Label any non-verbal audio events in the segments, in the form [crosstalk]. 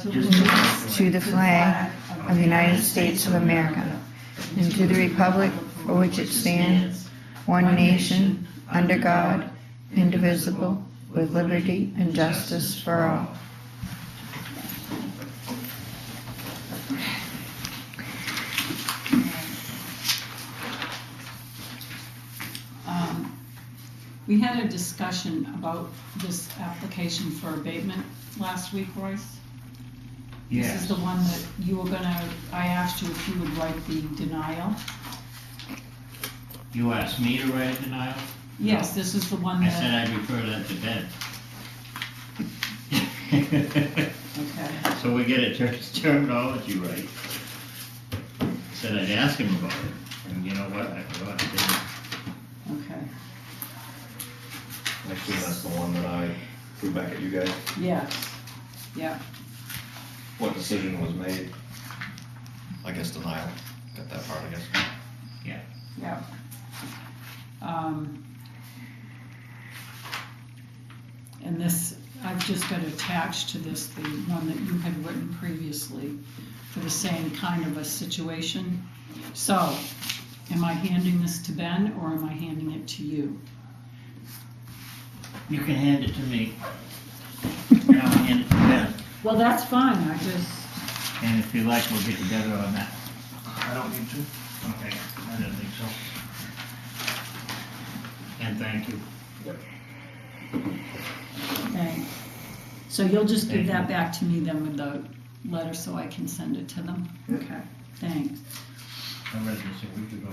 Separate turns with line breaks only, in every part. to the flag of the United States of America and to the republic for which it stands, one nation, under God, indivisible, with liberty and justice for all.
Um, We had a discussion about this application for abatement last week, Royce. This
Yes,
is the one that you were gonna, I asked you if you would write the denial.
you asked me to write a denial?
Yes, this is the one
I
Uh-huh.
said
that,
I'd refer that to Ben. [laughs]
okay,
So we get a ter- terminology right. Said I'd ask him about it, and you know what, I forgot, I didn't.
okay,
Actually, that's the one that I threw back at you guys.
yes, yeah,
What decision was made? I guess denial, got that part, I guess.
yeah. Um, And this, I've just got attached to this, the one that you had written previously for the same kind of a situation. So, am I handing this to Ben or am I handing it to you?
You can hand it to me. And I'll hand it to Ben,
Well, that's fine, I just,
and if you like, we'll get together on that.
I don't need to.
Okay, I don't think so. And thank you.
okay. So you'll just give that back to me then with the letter so I can send it to them? Okay. Thanks.
I read this a week ago.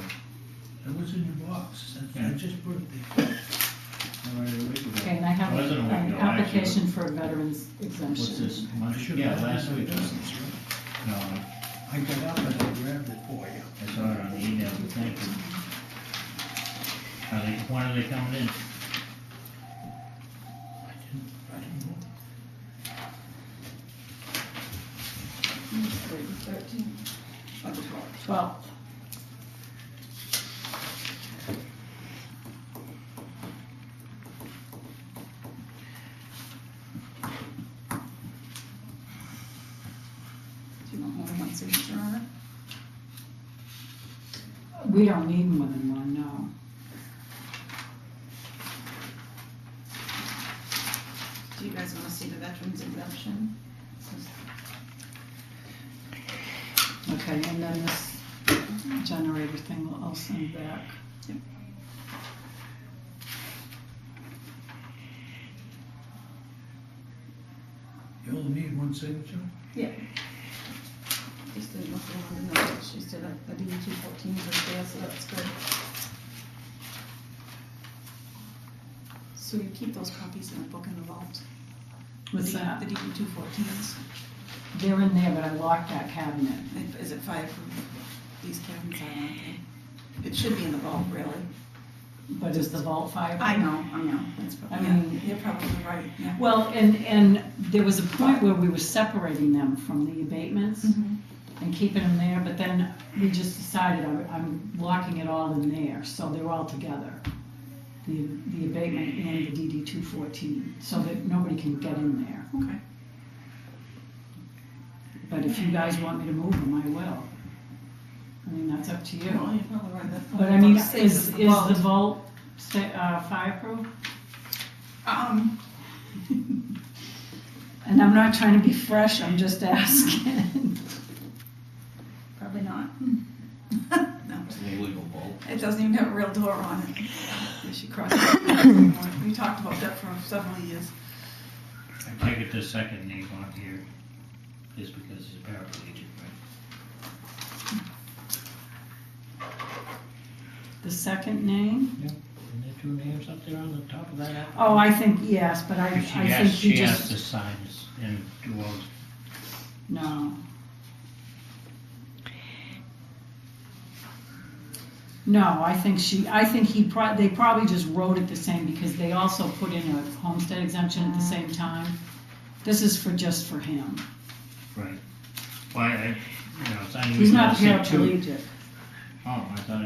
It was in your box. That's-
Yeah.
I just put it there.
I read it a week ago.
Okay, and I have
Wasn't a week
an
ago, actually.
application for a veteran's
What's this,
exemption.
I
month?
should
Yeah,
have
last
done
week.
it.
No,
I got up and I grabbed it for you.
I saw it on the email, but thank you. Are they, when are they coming in?
I didn't, I didn't know.
Twelve. Do you want more than one signature on it? We don't need more than one, no.
Do you guys want to see the veterans exemption?
Okay, and then this generator thing will all send back.
Yep.
You only need one signature?
Yeah. Just didn't look along the notes, she said that the D two fourteen was there, so that's good. So you keep those copies in the book in the vault?
What's
The-
that?
The D two fourteens,
They're in there, but I locked that cabinet.
is it fireproof? These cabins are not there. It should be in the vault, really.
But is the vault fire?
know, I know. That's
I
probably,
mean-
yeah, you're probably right, yeah.
Well, and, and there was a point where we were separating them from the abatements
Mm-hmm.
and keeping them there, but then we just decided I'm, I'm locking it all in there, so they're all together. The, the abatement and the DD two fourteen, so that nobody can get in there.
Okay.
But if you guys want me to move them, I will. I mean, that's up to you.
Well, you're probably right, that's
But I
probably
mean,
safe
is, is
in
the
vault.
vault sta- uh, fireproof?
Um,
And I'm not trying to be fresh, I'm just asking. [laughs]
probably not. [laughs] No.
It's an illegal vote.
It doesn't even have a real door on it. [laughs] We should cross it. [laughs] We talked about that for several years.
I take it the second name on here is because he's paraplegic, right?
The second name?
Isn't there two names up there on the top of that app?
Oh, I think yes, but I, I
She has,
think you
she has
just,
to sign this and do all,
no. No, I think she, I think he, pro- they probably just wrote it the same because they also put in a homestead exemption at the same time. This is for, just for him.
right. Why, I, you know, it's unusual.
He's not
to see Mm-hmm. two-
paraplegic.
Oh, I thought